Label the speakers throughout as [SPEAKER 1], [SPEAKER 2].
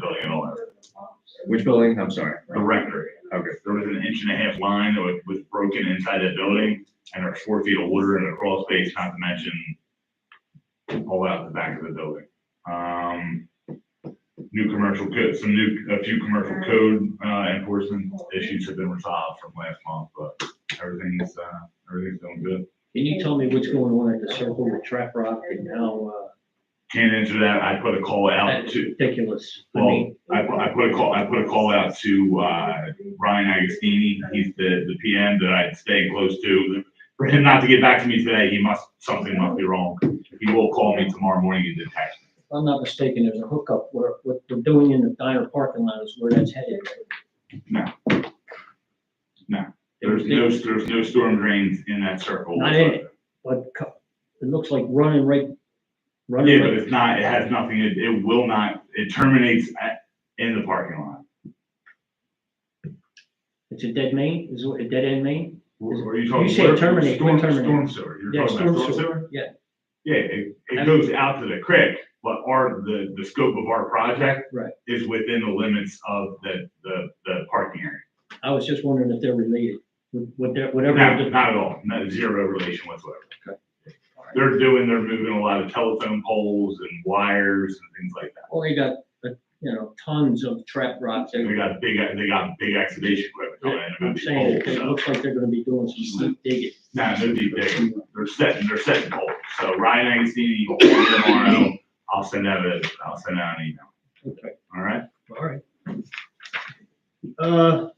[SPEAKER 1] building and all that,
[SPEAKER 2] Which building? I'm sorry.
[SPEAKER 1] the rectory.
[SPEAKER 2] Okay.
[SPEAKER 1] There was an inch and a half line that was, was broken inside that building, and there's four feet of water in the crawl space, not to mention all out the back of the building. Um, new commercial code, some new, a few commercial code, uh, enforcement issues have been resolved from last month, but everything's, uh, everything's going good.
[SPEAKER 3] Can you tell me what's going on at the circle with Trap Rock and how uh,
[SPEAKER 1] Can't answer that. I put a call out
[SPEAKER 3] that's
[SPEAKER 1] to,
[SPEAKER 3] ridiculous? I
[SPEAKER 1] Well,
[SPEAKER 3] mean,
[SPEAKER 1] I, pu- I put a call, I put a call out to, uh, Ryan Agostini. He's the, the PM that I'd stay close to. For him not to get back to me today, he must, something must be wrong. He will call me tomorrow morning and detect.
[SPEAKER 3] if I'm not mistaken, there's a hookup where, what they're doing in the diner parking lot is where that's headed.
[SPEAKER 1] There's no, there's no storm drains in that circle.
[SPEAKER 3] Not in it. But co- it looks like running right,
[SPEAKER 1] Yeah,
[SPEAKER 3] running
[SPEAKER 1] but
[SPEAKER 3] right.
[SPEAKER 1] it's not, it has nothing, it, it will not, it terminates at, in the parking lot.
[SPEAKER 3] It's a dead main, is it a dead end main?
[SPEAKER 1] What what are you talking?
[SPEAKER 3] You say
[SPEAKER 1] storm-
[SPEAKER 3] terminate, we
[SPEAKER 1] storm-
[SPEAKER 3] terminate.
[SPEAKER 1] Storm sewer, you're
[SPEAKER 3] Yeah,
[SPEAKER 1] talking about storm
[SPEAKER 3] storm sewer,
[SPEAKER 1] sewer?
[SPEAKER 3] yeah.
[SPEAKER 1] Yeah, it,
[SPEAKER 3] I
[SPEAKER 1] it
[SPEAKER 3] mean-
[SPEAKER 1] goes out to the creek, but our, the, the scope of our project.
[SPEAKER 3] Right.
[SPEAKER 1] Is within the limits of the, the, the parking area.
[SPEAKER 3] I was just wondering if they're related, with- with their- whatever.
[SPEAKER 1] Not,
[SPEAKER 3] the-
[SPEAKER 1] not at all, not zero relation whatsoever.
[SPEAKER 3] Okay.
[SPEAKER 1] They're doing, they're moving a lot of telephone poles and wires and things like that.
[SPEAKER 3] Well, they got, uh, you know, tons of trap rock
[SPEAKER 1] They
[SPEAKER 3] there.
[SPEAKER 1] got big, they got big excavation equipment coming in
[SPEAKER 3] I'm
[SPEAKER 1] about
[SPEAKER 3] saying,
[SPEAKER 1] these
[SPEAKER 3] it
[SPEAKER 1] poles. so-
[SPEAKER 3] looks like they're gonna be doing some deep digging.
[SPEAKER 1] Nah, no deep digging. They're setting, they're setting goals. So Ryan Agostini, tomorrow, I'll send out a, I'll send out an email.
[SPEAKER 3] Okay.
[SPEAKER 1] All right?
[SPEAKER 3] All right. Uh,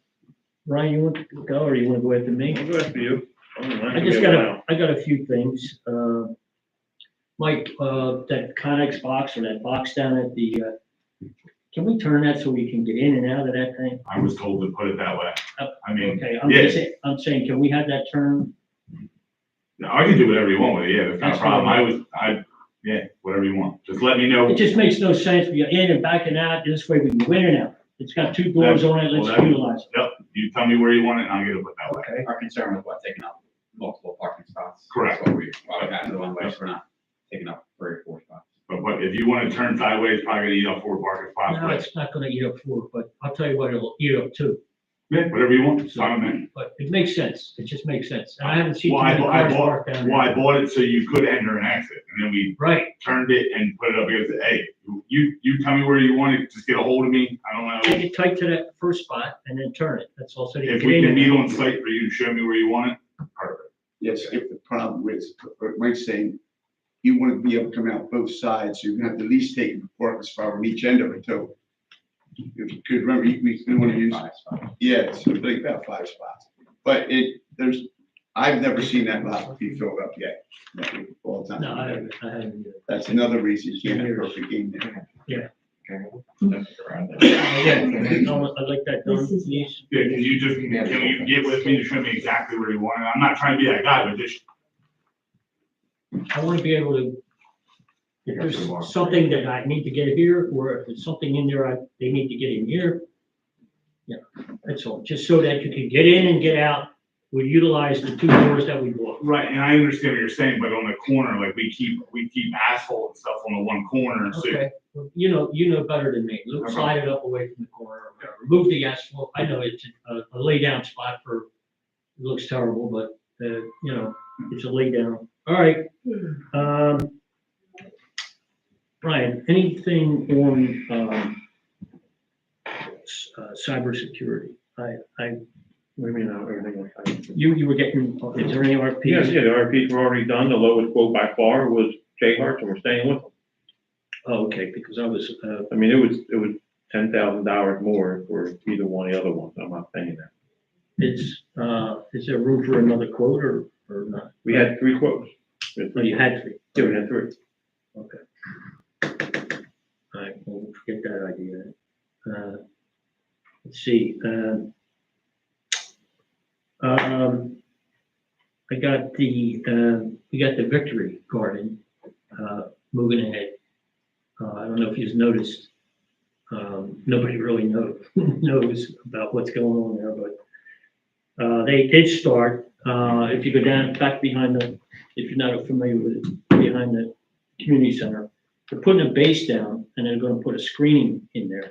[SPEAKER 3] Ryan, you want to go or you want to go after me?
[SPEAKER 4] I'll go after you.
[SPEAKER 3] I just got a, I got a few things. Uh, Mike, uh, that Conex box or that box down at the, uh, can we turn that so we can get in and out of that thing?
[SPEAKER 1] I was told to put it that way.
[SPEAKER 3] Oh,
[SPEAKER 1] I mean,
[SPEAKER 3] Okay, I'm
[SPEAKER 1] Mm-hmm. Yeah.
[SPEAKER 3] just, saying- I'm saying, can we have that turned?
[SPEAKER 1] no, I can do whatever you want with it. Yeah, that's not a
[SPEAKER 3] That's fine.
[SPEAKER 1] problem. I was, I, yeah, whatever you want. Just let me know.
[SPEAKER 3] It just makes no sense. We are in and backing out. This way we can go in and out. It's got two doors on it. Let's
[SPEAKER 1] Well, that-
[SPEAKER 3] utilize it.
[SPEAKER 1] Yep, you tell me where you want it and I'll get it put that way.
[SPEAKER 3] Okay.
[SPEAKER 4] Our concern was what, taking up multiple parking spots?
[SPEAKER 1] Correct.
[SPEAKER 4] That's what we, why we got into the one way, so we're not taking up three or four spots.
[SPEAKER 1] But what, if you want to turn sideways, probably gonna eat up four parking spots,
[SPEAKER 3] No,
[SPEAKER 1] but
[SPEAKER 3] it's not gonna eat up four, but I'll tell you what, it'll eat up two.
[SPEAKER 1] yeah, whatever you want. So I'm in.
[SPEAKER 3] But it makes sense, it just makes sense, and I haven't seen too
[SPEAKER 1] Why,
[SPEAKER 3] many
[SPEAKER 1] why,
[SPEAKER 3] cars
[SPEAKER 1] why,
[SPEAKER 3] parked down
[SPEAKER 1] why I
[SPEAKER 3] there.
[SPEAKER 1] bought it so you could enter and exit. And then we
[SPEAKER 3] Right,
[SPEAKER 1] turned it and put it up here and said, hey, you, you tell me where you want it, just get a hold of me, I don't know.
[SPEAKER 3] take it tight to that first spot and then turn it, that's all, so they can
[SPEAKER 1] If
[SPEAKER 3] get
[SPEAKER 1] we
[SPEAKER 3] in
[SPEAKER 1] can
[SPEAKER 3] and
[SPEAKER 1] meet
[SPEAKER 3] out.
[SPEAKER 1] on site for you to show me where you want it, perfect.
[SPEAKER 5] Yes, if the problem is, what Mike's saying, you want to be able to come out both sides, so you're gonna have to at least take a parking spot from each end of it, so. If you could remember, you- we want to use,
[SPEAKER 4] Five spots.
[SPEAKER 5] yeah, so like about five spots, but it, there's, I've never seen that lot be filled up yet. no, All the
[SPEAKER 3] No, I
[SPEAKER 5] time.
[SPEAKER 3] haven't, I haven't. either.
[SPEAKER 5] That's another reason you can't have a perfect game there.
[SPEAKER 3] Again, I want- I'd like that done, please,
[SPEAKER 1] Yeah, can you just, can you get with me to show me exactly where you want it? I'm not trying to be that guy, but just.
[SPEAKER 3] I wanna be able to, if there's something that I need to get here, or if it's something in there, I, they need to get in here. Yeah, that's all, just so that you can get in and get out, we utilize the two doors that we bought.
[SPEAKER 1] Right, and I understand what you're saying, but on the corner, like we keep, we keep asphalt and stuff on the one corner, so.
[SPEAKER 3] Okay, Uh-huh. well, you know, you know better than me. Look,
[SPEAKER 1] Okay.
[SPEAKER 3] slide it up away from the corner, or whatever. remove the asphalt. I know it's a, a lay down spot for, it looks terrible, but, uh, you know, it's a lay down. All right. Um, Brian, anything on, um, s- uh, cybersecurity? I, I,
[SPEAKER 6] What do you mean, not everything like that?
[SPEAKER 3] you, you were getting, is there any RFPs?
[SPEAKER 6] Yes, yeah, the RFPs were already done, the lowest quote by far was J Hart's, and we're staying with them.
[SPEAKER 3] Oh, okay, because I was, uh,
[SPEAKER 6] I mean, it was, it was ten thousand dollars more for either one of the other ones, I'm not saying that.
[SPEAKER 3] it's, uh, is there room for another quote or, or not?
[SPEAKER 6] We had three quotes. We had
[SPEAKER 3] No,
[SPEAKER 6] three.
[SPEAKER 3] you had three.
[SPEAKER 6] Yeah, we had three.
[SPEAKER 3] Okay. All right, well, we'll forget that idea. Uh, Let's see, um, um, I got the, uh, we got the Victory Garden, uh, moving ahead. Uh, I don't know if you've noticed, um, nobody really know, knows about what's going on there, but, uh, they did start, uh, if you go down, back behind the, if you're not familiar with it, behind the community center. They're putting a base down and they're gonna put a screening in there.